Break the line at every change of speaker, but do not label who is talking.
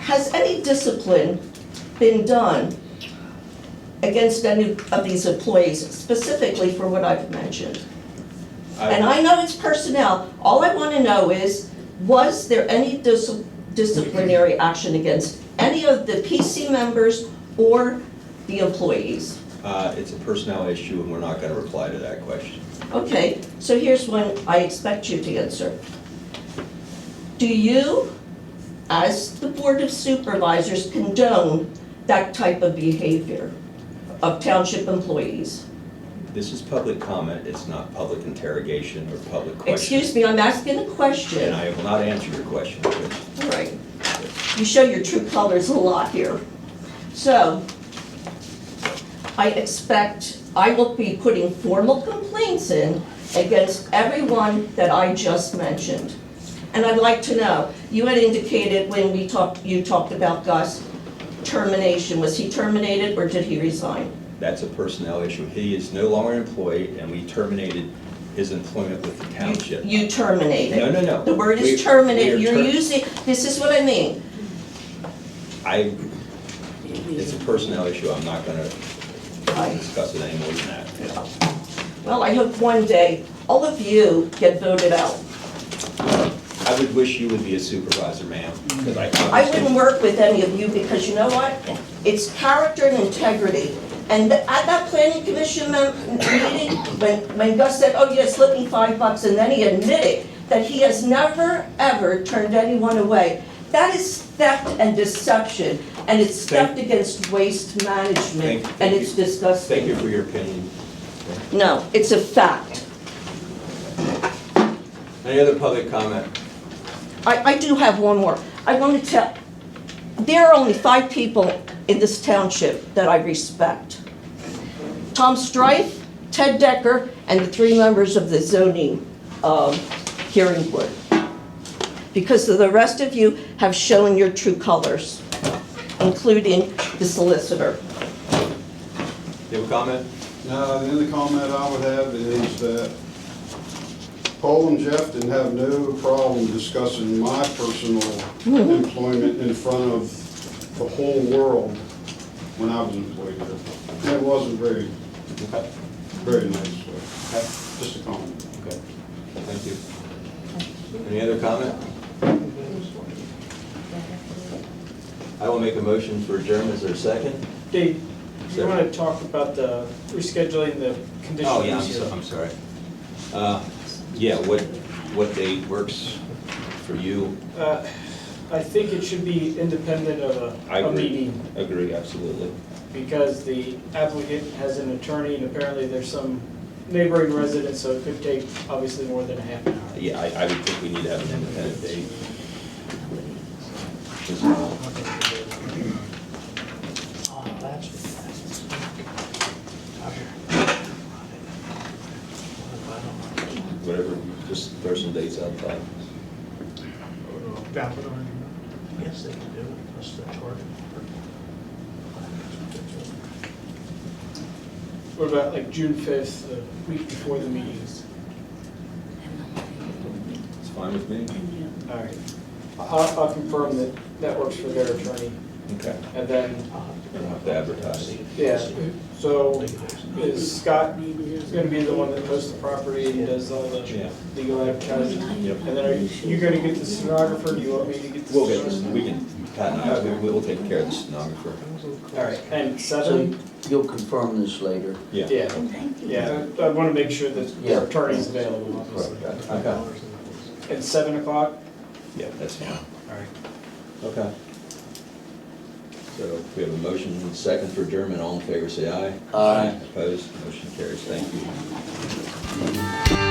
has any discipline been done against any of these employees specifically for what I've mentioned? And I know it's personnel, all I want to know is, was there any dis- disciplinary action against any of the PC members or the employees?
Uh, It's a personnel issue, and we're not going to reply to that question.
Okay, so here's one I expect you to answer. Do you, as the Board of Supervisors, condone that type of behavior of township employees?
This is public comment, it's not public interrogation or public question.
Excuse me, I'm asking a
And
question.
I will not answer your question, but
All right. You show your true colors a lot here. So, I expect, I will be putting formal complaints in against everyone that I just mentioned. And I'd like to know, you had indicated when we talked, you talked about Gus termination, was he terminated or did he resign?
that's a personnel issue. He is no longer employed, and we terminated his employment with the township.
You terminated.
No, no, no.
The word
We-
is terminated,
we are
you're
ter-
using, this is what I mean.
I, it's a personnel issue, I'm not going to discuss it any more than that.
Well, I hope one day, all of you get voted out.
I would wish you would be a supervisor, ma'am, because I
I wouldn't work with any of you because you know what? It's character and integrity. And th- at that planning commission mem- meeting, when, when Gus said, oh, you just slipped me five bucks, and then he admitted that he has never, ever turned anyone away. That is theft and deception, and it's
Thank-
theft against waste management,
Thank- thank
and
you.
it's disgusting.
Thank you for your opinion.
No, it's a fact.
Any other public comment?
I, I do have one more. I want to tell, there are only five people in this township that I respect. Tom Strife, Ted Decker, and the three members of the zoning um, hearing board. Because the rest of you have shown your true colors, including the solicitor.
You have a comment?
Now, Uh, the only comment I would have is that Paul and Jeff didn't have no problem discussing my personal employment in front of the whole world when I was employed there. And it wasn't very,
Okay.
very nice, so, just a comment.
Okay, thank you. Any other comment? I will make a motion for adjournment, is there a second?
Dave, you
Sir.
want to talk about the rescheduling the conditional?
Oh, yeah, I'm
use
so,
hearing?
I'm sorry. Uh, yeah, what, what date works for you?
Uh, I think it should be independent of
I
a, a
agree.
meeting,
Agree, absolutely.
because the applicant has an attorney, and apparently there's some neighboring residents, so it could take obviously more than a half an hour.
Uh, Yeah, I, I would think we need to have an independent date. Just, uh,
Oh, that's what
Whatever, just throw some dates out, fine.
that is. Yes, they can do it, that's the target.
What about like June fifth, the week before the meetings?
It's fine with me?
All right. I'll, I'll confirm that that works for their attorney,
Okay,
and then,
I don't have to advertise.
yeah, so is Scott gonna be the one that posts the property and does all the
Yeah.
legal advertising?
Yep.
And then are you, you gonna get the stenographer, do you want me to get the
We'll get
stenographer?
this, we can, Pat and I, we we will take care of the stenographer.
All right, and
So
seven,
you'll confirm this later.
Yeah.
yeah, yeah, I wanna make sure that
Yeah.
our attorney's available, obviously.
Okay.
And seven o'clock?
Yeah, that's fine.
All right.
Okay. So we have a motion and second for adjournment. All in favor, say aye.
Aye.
Opposed? Motion carries. Thank you.